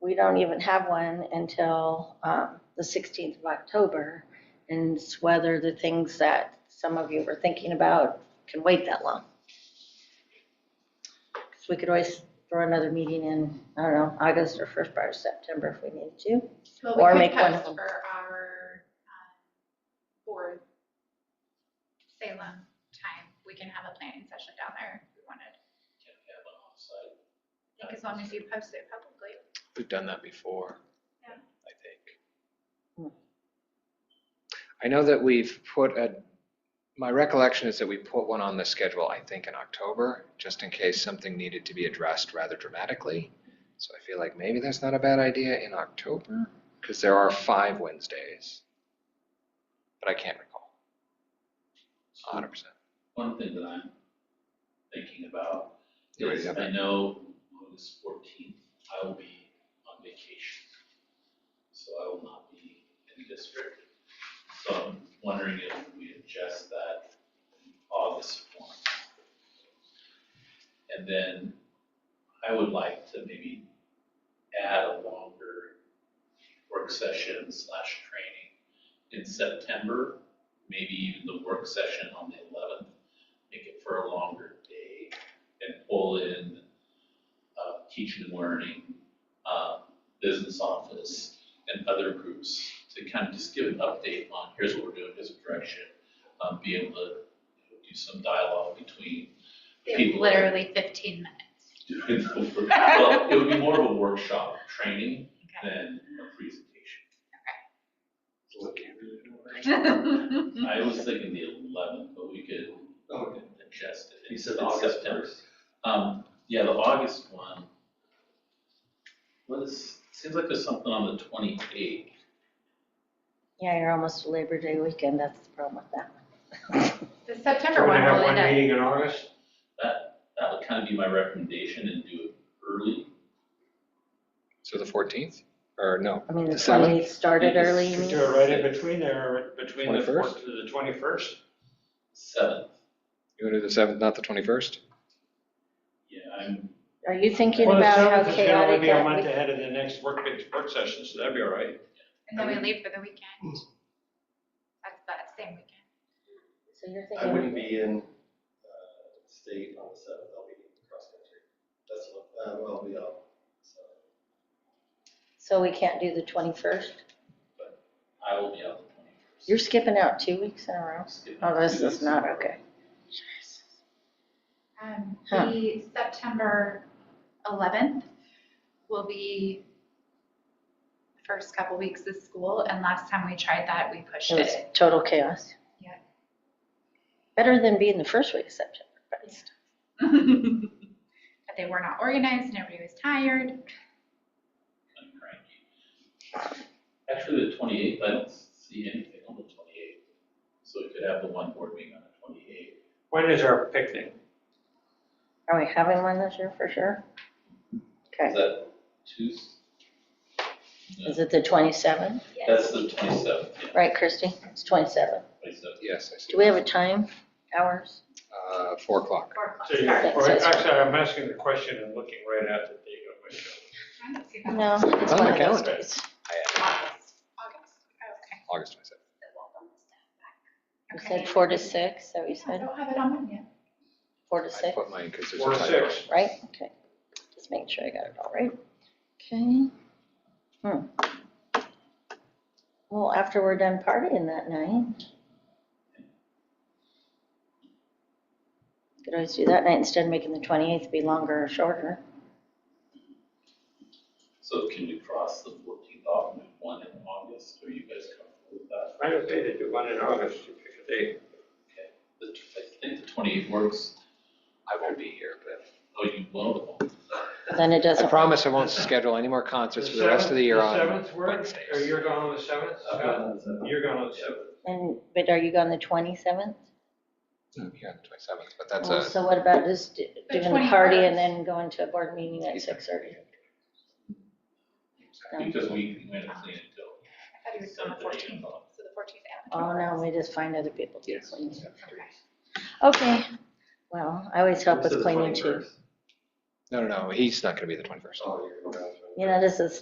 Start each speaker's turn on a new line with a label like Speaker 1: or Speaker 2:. Speaker 1: we don't even have one until um, the 16th of October. And it's whether the things that some of you were thinking about can wait that long. Because we could always throw another meeting in, I don't know, August or first part of September if we needed to.
Speaker 2: Well,
Speaker 1: Or
Speaker 2: we
Speaker 1: make
Speaker 2: could
Speaker 1: one of them.
Speaker 2: post for our um, board Salem time. We can have a planning session down there if we wanted.
Speaker 3: Can we have an offsite?
Speaker 2: I think as long as you post it publicly.
Speaker 4: We've done that before, I
Speaker 2: Yeah.
Speaker 4: think.
Speaker 1: Hmm.
Speaker 4: I know that we've put a, my recollection is that we put one on the schedule, I think, in October, just in case something needed to be addressed rather dramatically. So I feel like maybe that's not a bad idea in October, because there are five Wednesdays. But I can't recall, a hundred percent.
Speaker 3: One thing that I'm thinking about
Speaker 4: You already
Speaker 3: is
Speaker 4: have
Speaker 3: I
Speaker 4: that.
Speaker 3: know August fourteenth, I will be on vacation. So I will not be in the district. So I'm wondering if we adjust that August one. And then I would like to maybe add a longer work session slash training in September maybe even the work session on the eleventh, make it for a longer day and pull in uh, teaching and learning, uh, business office and other groups to kind of just give an update on here's what we're doing, here's the direction. Um, be able to you know, do some dialogue between the people. that are
Speaker 2: Literally fifteen minutes.
Speaker 3: doing the work. Well, it would be more of a workshop training than a presentation. I
Speaker 1: Mm-hmm.
Speaker 3: was thinking the eleventh, but we could adjust it.
Speaker 5: You said
Speaker 3: It's
Speaker 5: August
Speaker 3: September.
Speaker 5: first.
Speaker 3: Um, yeah, the August one. What is, seems like there's something on the twenty-eighth.
Speaker 1: Yeah, you're almost to Labor Day weekend, that's the problem with that.
Speaker 2: The
Speaker 5: So
Speaker 2: September
Speaker 5: we're
Speaker 2: one
Speaker 5: gonna have
Speaker 2: will
Speaker 5: one
Speaker 2: end up,
Speaker 5: meeting in August?
Speaker 3: That, that would kind of be my recommendation and do it early.
Speaker 4: So the fourteenth, or no,
Speaker 1: I mean, the
Speaker 4: The seventh.
Speaker 1: 28th started early, you
Speaker 5: We
Speaker 1: mean?
Speaker 5: do it right in between there, between the
Speaker 4: 21st?
Speaker 5: fourth to the twenty-first?
Speaker 3: Seventh,
Speaker 4: you want to do the seventh, not the twenty-first?
Speaker 3: yeah, I'm,
Speaker 1: Are you thinking about how chaotic
Speaker 5: Well, the seventh is gonna be a month
Speaker 1: that?
Speaker 5: ahead of the next work, work session, so that'd be all right.
Speaker 2: and then we leave for the weekend. That's that same weekend.
Speaker 1: we- So you're
Speaker 6: I
Speaker 1: thinking,
Speaker 6: wouldn't be in uh, state on the seventh, I'll be in cross country. That's what, uh, well, I'll be out, so.
Speaker 1: so we can't do the 21st?
Speaker 3: I will be out the twenty-first.
Speaker 1: You're skipping out two weeks in a row? Oh, this is not, okay.
Speaker 2: Um,
Speaker 1: Huh.
Speaker 2: the September eleventh will be the first couple weeks of school, and last time we tried that, we pushed
Speaker 1: It was
Speaker 2: it.
Speaker 1: total chaos.
Speaker 2: Yeah.
Speaker 1: Better than being the first week of September, but it's-
Speaker 2: But they were not organized, and everybody was tired.
Speaker 3: I'm cranky. Actually, the twenty-eighth, I don't see anything on the twenty-eighth, so we could have the one board meeting on the twenty-eighth.
Speaker 5: When is our picnic?
Speaker 1: are we having one this year for sure?
Speaker 3: Is
Speaker 1: Okay,
Speaker 3: that Tuesday? No,
Speaker 1: is it the 27th?
Speaker 3: That's the twenty-seventh, yeah,
Speaker 1: Right, Christie? It's 27th.
Speaker 3: twenty-seventh.
Speaker 4: Yes, I see.
Speaker 1: Do we have a time, hours?
Speaker 4: Uh, four o'clock.
Speaker 2: Four o'clock
Speaker 5: So you-
Speaker 2: start.
Speaker 5: or Actually, I'm asking the question and looking right at the date of my show.
Speaker 2: I don't see that.
Speaker 1: No, it's
Speaker 4: on
Speaker 1: one
Speaker 4: the
Speaker 1: of those
Speaker 4: calendar.
Speaker 1: days.
Speaker 2: August, August, okay.
Speaker 4: uh, August twenty-seventh.
Speaker 1: You
Speaker 2: Okay.
Speaker 1: said four to six, so you
Speaker 2: Yeah, I
Speaker 1: said
Speaker 2: don't have it on mine yet.
Speaker 1: four to
Speaker 4: I
Speaker 1: six,
Speaker 4: put mine because there's
Speaker 5: Four
Speaker 4: a
Speaker 5: to
Speaker 4: typo.
Speaker 5: six.
Speaker 1: right? Okay, just making sure I got it all right. Okay. Hmm. Well, after we're done partying that night. Could always do that night instead of making the 28th be longer or shorter.
Speaker 3: So can we cross the fourteenth off and do one in August, are you guys comfortable with that?
Speaker 5: I don't think they do one in August, you pick a date.
Speaker 3: Okay, the, I think the twenty-eighth works,
Speaker 4: I won't be here, but.
Speaker 3: oh, you will,
Speaker 1: Then it doesn't.
Speaker 4: I promise I won't schedule any more concerts for the rest of the year
Speaker 5: The
Speaker 4: on
Speaker 5: seventh works, or
Speaker 4: Wednesdays.
Speaker 5: you're going on the seventh?
Speaker 3: I've got one on the seventh.
Speaker 5: You're going on the seventh.
Speaker 1: And, but are you gone the 27th?
Speaker 4: I'm here on the twenty-seventh, but that's
Speaker 1: Well,
Speaker 4: a,
Speaker 1: So what about just d-
Speaker 2: The
Speaker 1: doing the party and
Speaker 2: 21st.
Speaker 1: then going to a board meeting at 6:30? No.
Speaker 3: because we went and cleaned it
Speaker 2: I thought he was
Speaker 3: till
Speaker 2: on the
Speaker 3: seven
Speaker 2: fourteenth,
Speaker 3: o'clock.
Speaker 2: so the fourteenth and the
Speaker 1: Oh,
Speaker 2: twenty-first.
Speaker 1: no, we just find other people to
Speaker 4: Yes.
Speaker 1: clean.
Speaker 2: Okay.
Speaker 1: Okay, well, I always help with cleaning too.
Speaker 4: no, no, no, he's not gonna be the twenty-first.
Speaker 6: Oh, you're going down to-
Speaker 1: You know, this is